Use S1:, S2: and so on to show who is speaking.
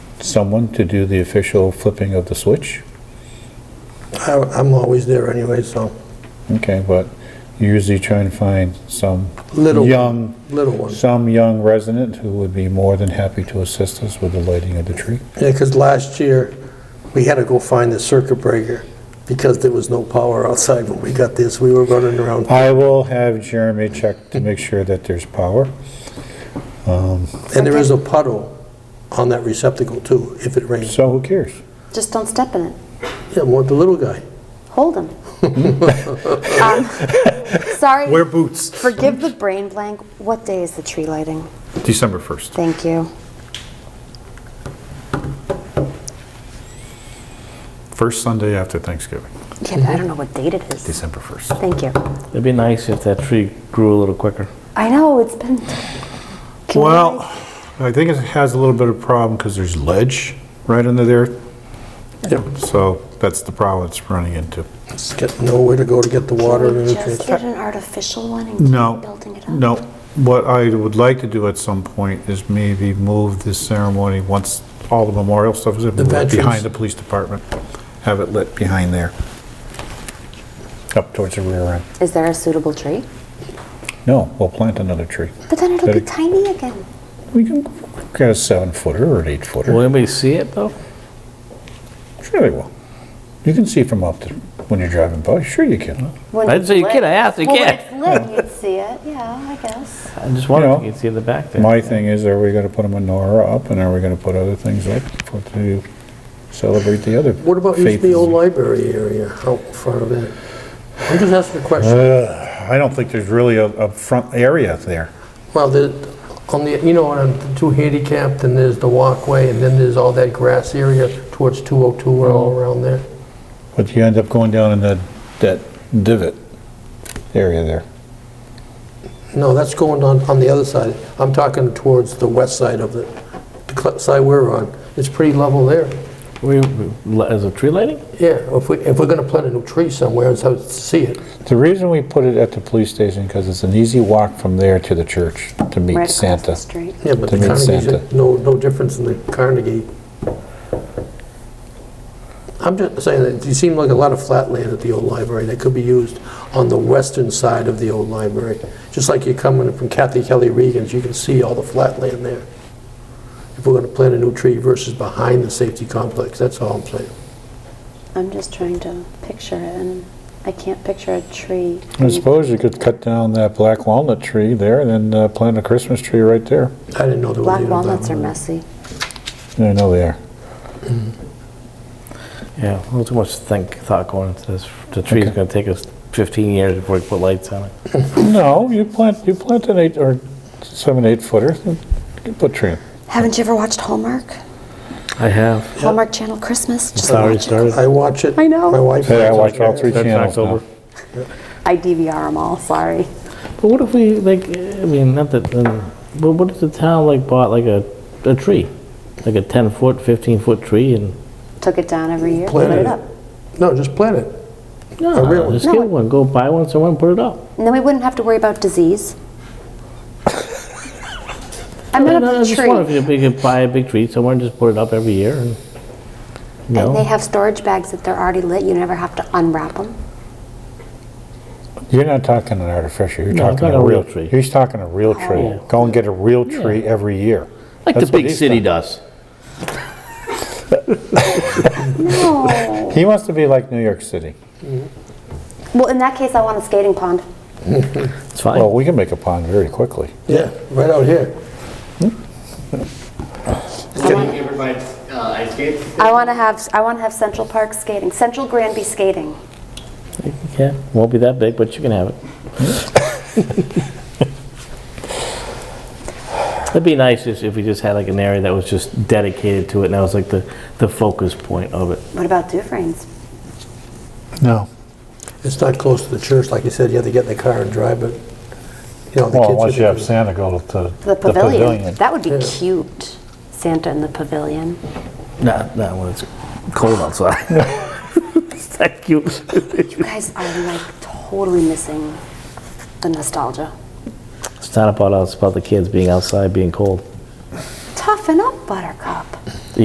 S1: someone to do the official flipping of the switch?
S2: I- I'm always there anyway, so,
S1: Okay, but you usually try and find some
S2: Little-
S1: young,
S2: little one.
S1: some young resident who would be more than happy to assist us with the lighting of the tree.
S2: Yeah, because last year, we had to go find the circuit breaker because there was no power outside when we got this. We were running around.
S1: I will have Jeremy check to make sure that there's power.
S2: And there is a puddle on that receptacle too, if it rains.
S1: So who cares?
S3: Just don't step in it.
S2: Yeah, more the little guy.
S3: Hold him. um, sorry.
S2: boots.
S3: Forgive the brain blank. What day is the tree lighting?
S1: December 1st.
S3: Thank you.
S1: First Sunday after Thanksgiving,
S3: Yeah, but I don't know what date it is.
S1: December 1st.
S3: Thank you.
S4: It'd be nice if that tree grew a little quicker.
S3: I know it's been. Can we,
S1: Well,
S3: like-
S1: I think it has a little bit of problem because there's ledge right under there.
S2: Yep.
S1: So that's the problem it's running into.
S2: It's got nowhere to go to get the water
S3: can
S2: and
S3: we
S2: everything.
S3: just get an artificial one and keep
S1: No,
S3: building it up?
S1: no. What I would like to do at some point is maybe move this ceremony, once all the memorial stuff is, in,
S2: The
S1: move it
S2: veterans.
S1: behind the police department. Have it lit behind there. Up towards the rear end.
S3: Is there a suitable tree?
S1: No, we'll plant another tree.
S3: But then it'll be
S1: Better-
S3: tiny again.
S1: We can get a seven footer or an eight footer.
S4: Will anybody see it though?
S1: Sure they will. You can see from up to, when you're driving by, sure you can.
S3: When
S4: I'd
S3: it's
S4: say you
S3: lit-
S4: could ask, you
S3: well, when
S4: can't.
S3: it's lit, you'd see it. Yeah, I guess.
S4: I just wondered
S1: You
S4: if
S1: know,
S4: you could see the back there.
S1: My thing is, are we gonna put a menorah up and are we gonna put other things up for, to celebrate the other?
S2: What about
S1: faith?
S2: using the old library area out in front of it? I'm just asking a question.
S1: Uh, I don't think there's really a, a front area there.
S2: Well, the, on the, you know, on two handicapped and there's the walkway and then there's all that grass area towards 202 and all around there.
S1: But you end up going down in that, that divot area there.
S2: No, that's going on, on the other side. I'm talking towards the west side of the, the cl- side we're on. It's pretty level there.
S4: We, we- as a tree lighting?
S2: Yeah, if we, if we're gonna plant a new tree somewhere, it's how to see it.
S1: The reason we put it at the police station, because it's an easy walk from there to the church to
S3: right
S1: meet
S3: across the
S1: Santa.
S3: street.
S2: Yeah, but
S1: To
S2: the
S1: meet
S2: Carnegie's,
S1: Santa.
S2: no, no difference in the Carnegie. I'm just saying that you seem like a lot of flat land at the old library that could be used on the western side of the old library. Just like you're coming from Kathy Kelly Regan's, you can see all the flat land there. If we're gonna plant a new tree versus behind the safety complex, that's all I'm saying.
S3: I'm just trying to picture it, and I can't picture a tree.
S1: I suppose you could cut down that black walnut tree there and then uh, plant a Christmas tree right there.
S2: I didn't know there was.
S3: Black
S2: any
S3: walnuts are
S2: black-
S3: messy.
S1: Yeah, I know they are.
S4: Yeah, a little too much think, thought going into this. The tree's gonna take us 15 years before we put lights on it.
S1: No, you plant, you plant an eight or seven, eight footer, you can put tree in.
S3: Haven't you ever watched Hallmark?
S4: I have.
S3: Hallmark Channel Christmas? Just
S4: It's already
S3: watch it.
S4: started.
S2: I watch it.
S3: I know.
S2: My wife.
S1: Hey, I
S2: watches
S1: watch
S2: it.
S1: all three
S4: That's
S1: channels now.
S4: October.
S3: I DVR them all, sorry.
S4: But what if we, like, I mean, not that, um, but what if the town like bought like a, a tree? Like a 10 foot, 15 foot tree and,
S3: Took it down every year, put
S2: Planted
S3: it
S2: it.
S3: up.
S2: No, just plant it.
S4: no,
S2: really?
S4: just
S3: No,
S4: uh, get
S3: it-
S4: one, go buy one somewhere and put it up.
S3: And then we wouldn't have to worry about disease. I'm
S4: No,
S3: not
S4: no, I
S3: a
S4: uh, just wonder if
S3: tree.
S4: you could- we could buy a big tree somewhere and just put it up every year and, you
S3: And they
S4: know.
S3: have storage bags that they're already lit, you never have to unwrap them.
S1: You're not talking an artificial, you're
S4: No, I'm
S1: talking a
S4: talking
S1: real tree. He's talking a real tree.
S4: Yeah.
S1: Go and get a real tree every year.
S4: Like the
S1: That's what
S4: big
S1: he's
S4: city
S1: done.
S4: does.
S3: No.
S1: He wants to be like New York City.
S3: Well, in that case, I want a skating pond.
S4: It's fine.
S1: Well, we can make a pond very quickly.
S2: Yeah, right out here.
S3: I
S5: Can
S3: want,
S5: you ever buy uh, ice skates?
S3: I want to have, I want to have Central Park skating, Central Granby skating.
S4: Yeah, won't be that big, but you can have it. It'd be nice if, if we just had like an area that was just dedicated to it, and that was like the, the focus point of it.
S3: What about Dufrane's?
S1: No.
S2: It's not close to the church, like you said, you have to get in the car and drive, but, you know, the kids...
S1: Well, unless
S2: are
S1: you have
S2: gonna-
S1: Santa go to the
S3: The pavilion.
S1: pavilion.
S3: That would be
S2: Yeah.
S3: cute, Santa in the pavilion.
S4: Not, not when it's cold outside. Is that cute?
S3: You guys are like totally missing the nostalgia.
S4: It's not about us, it's about the kids being outside, being cold.
S3: Toughen up, Buttercup.